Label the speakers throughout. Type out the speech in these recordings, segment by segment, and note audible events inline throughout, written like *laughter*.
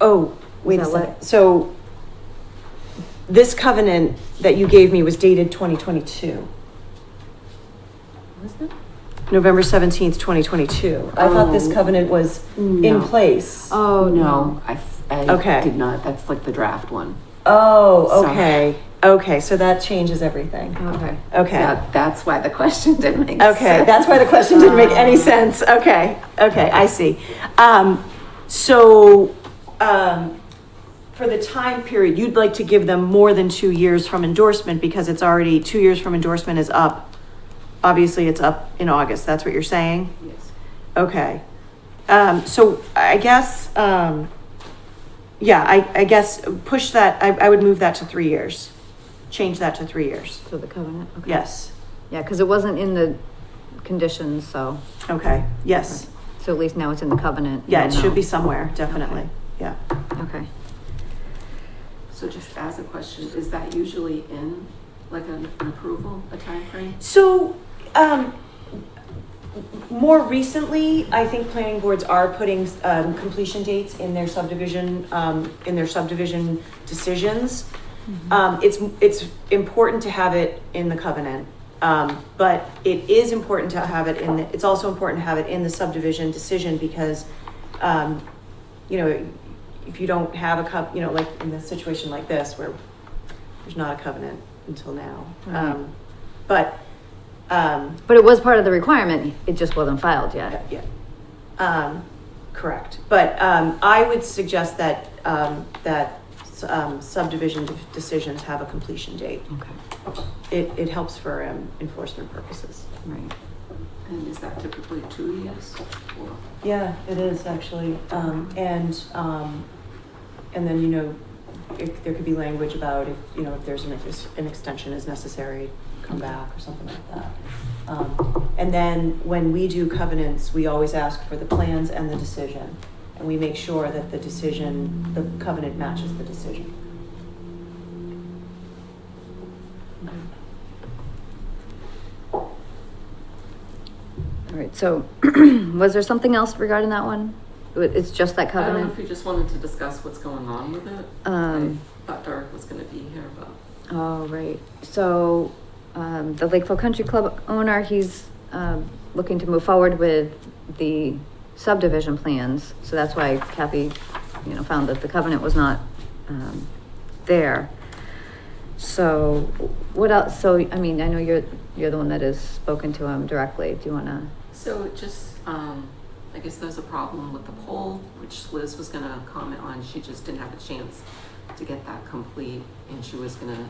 Speaker 1: Oh, wait a
Speaker 2: Now what?
Speaker 1: second, so this covenant that you gave me was dated twenty twenty-two,
Speaker 2: Was it?
Speaker 1: November seventeenth, twenty twenty-two. I thought this
Speaker 3: Oh.
Speaker 1: covenant was
Speaker 3: No.
Speaker 1: in place.
Speaker 2: Oh, no.
Speaker 3: I, f- I
Speaker 1: Okay.
Speaker 3: did not. That's like the draft one.
Speaker 1: Oh,
Speaker 3: So-
Speaker 1: okay, okay, so that changes everything,
Speaker 2: Okay.
Speaker 1: okay.
Speaker 3: That, that's why the *laughs* question didn't make
Speaker 1: Okay,
Speaker 3: sense.
Speaker 1: that's why the question didn't make any sense. Okay, okay, I see. Um, so, um, for the time period, you'd like to give them more than two years from endorsement because it's already, two years from endorsement is up. Obviously, it's up in August, that's what you're saying?
Speaker 3: Yes.
Speaker 1: Okay. Um, so I guess, um, yeah, I, I guess push that, I, I would move that to three years. Change that to three years.
Speaker 2: So the covenant, okay.
Speaker 1: Yes,
Speaker 2: Yeah, because it wasn't in the conditions, so,
Speaker 1: okay, yes.
Speaker 2: so at least now it's in the covenant.
Speaker 1: Yeah, it
Speaker 2: you'll
Speaker 1: should
Speaker 2: know.
Speaker 1: be somewhere, definitely, yeah.
Speaker 2: Okay.
Speaker 3: So just as a question, is that usually in like an an approval, a timeframe?
Speaker 1: So, um, more recently, I think planning boards are putting, um, completion dates in their subdivision, um, in their subdivision decisions. Um, it's, it's important to have it in the covenant, um, but it is important to have it in, the it's also important to have it in the subdivision decision because, um, you know, if you don't have a cov, you know, like in a situation like this where there's not a covenant until now. Um, but, um,
Speaker 2: But it was part of the requirement, it just wasn't filed yet.
Speaker 1: yeah, um, correct. But, um, I would suggest that, um, that, um, subdivision de- decisions have a completion date.
Speaker 2: Okay,
Speaker 1: It, it helps for, um, enforcement purposes.
Speaker 2: right.
Speaker 3: And is that typically two years or?
Speaker 1: Yeah, it is actually, um, and, um, and then, you know, it, there could be language about if, you know, if there's an, ex- an extension is necessary, come back or something like that. Um, and then when we do covenants, we always ask for the plans and the decision. And we make sure that the decision, the covenant matches the decision.
Speaker 2: All right, so *clears throat* was there something else regarding that one? It- It's just
Speaker 3: I don't
Speaker 2: that
Speaker 3: know if
Speaker 2: covenant?
Speaker 3: you just wanted to discuss what's going on with it.
Speaker 2: Um,
Speaker 3: I thought Derek was gonna be here, but
Speaker 2: Oh, right. So, um, the Lakeville Country Club owner, he's, um, looking to move forward with the subdivision plans. So that's why Kathy, you know, found that the covenant was not, um, there. So what else? So, I mean, I know you're, you're the one that has spoken to him directly. Do you wanna?
Speaker 3: So it just, um, I guess there's a problem with the poll, which Liz was gonna comment on. She just didn't have a chance to get that complete. And she was gonna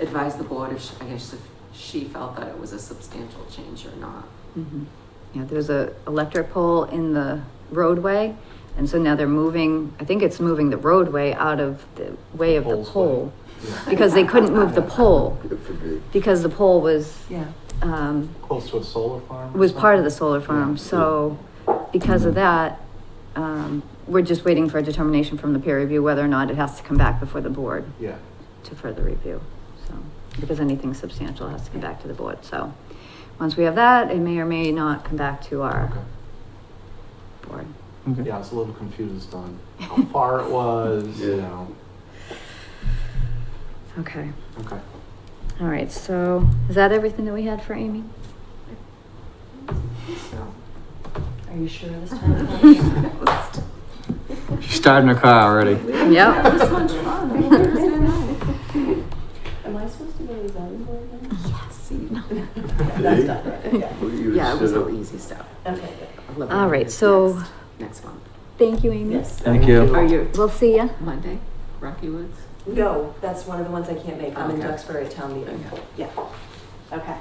Speaker 3: advise the board if, she- I guess, if she felt that it was a substantial change or not.
Speaker 2: Mhm. Yeah, there's a electric pole in the roadway, and so now they're moving, I think it's moving the roadway out of the way of the
Speaker 4: Pole's way.
Speaker 2: pole. Because they couldn't move the pole,
Speaker 5: Good for me.
Speaker 2: because the pole was,
Speaker 1: Yeah.
Speaker 2: um,
Speaker 4: Close to a solar farm? or
Speaker 2: was part of the solar
Speaker 4: something?
Speaker 2: farm, so because of that, um, we're just waiting for a determination from the peer review whether or not it has to come back before the board
Speaker 4: Yeah,
Speaker 2: to further review, so, because anything substantial has to come back to the board, so. Once we have that, it may or may not come back to our
Speaker 4: okay.
Speaker 2: board.
Speaker 4: Yeah, I was a little confused on how far it was, you
Speaker 5: Yeah.
Speaker 4: know,
Speaker 2: Okay,
Speaker 4: okay.
Speaker 2: all right, so is that everything that we had for Amy?
Speaker 3: So.
Speaker 1: Are you sure
Speaker 3: *laughs*
Speaker 1: this time?
Speaker 3: Yep.
Speaker 6: She's starting her car already.
Speaker 2: Yep.
Speaker 3: It was much
Speaker 1: *laughs*
Speaker 3: fun. Thursday night.
Speaker 1: Am I supposed to go to the zoning board then?
Speaker 3: Yes, you know.
Speaker 1: That's not right, yeah.
Speaker 5: What do you
Speaker 3: Yeah, it was
Speaker 5: sit
Speaker 3: no
Speaker 5: up?
Speaker 3: easy stuff.
Speaker 1: Okay, good.
Speaker 3: Olivia
Speaker 2: All right,
Speaker 3: is
Speaker 2: so-
Speaker 3: next- Next month.
Speaker 2: Thank you, Amy.
Speaker 1: Yes.
Speaker 6: Thank you.
Speaker 3: Are you
Speaker 2: We'll see ya.
Speaker 3: Monday, Rocky Woods?
Speaker 1: No, that's one of the ones I can't make. I'm in
Speaker 3: Okay.
Speaker 1: Duxbury at town meeting.
Speaker 3: Okay.
Speaker 1: Yeah. Okay.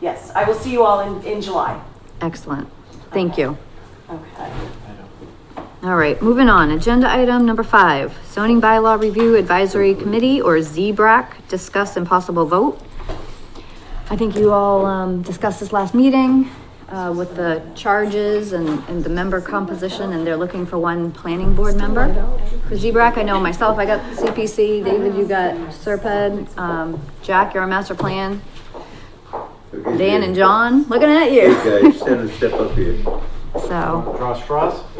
Speaker 1: Yes, I will see you all in, in July.
Speaker 2: Excellent. Thank you.
Speaker 1: Okay.
Speaker 4: I don't.
Speaker 2: All right, moving on. Agenda item number five, zoning bylaw review advisory committee or ZBRAC, discuss impossible vote. I think you all, um, discussed this last meeting, uh, with the charges and, and the member composition and they're looking for one planning board member. For ZBRAC, I know myself, I got CPC, David, you got Serped, um, Jack, you're on master plan,
Speaker 5: Okay,
Speaker 2: Dan and
Speaker 5: Dave.
Speaker 2: John, looking at you.
Speaker 5: Okay, stand and step up here.
Speaker 2: So.
Speaker 4: Draw straws?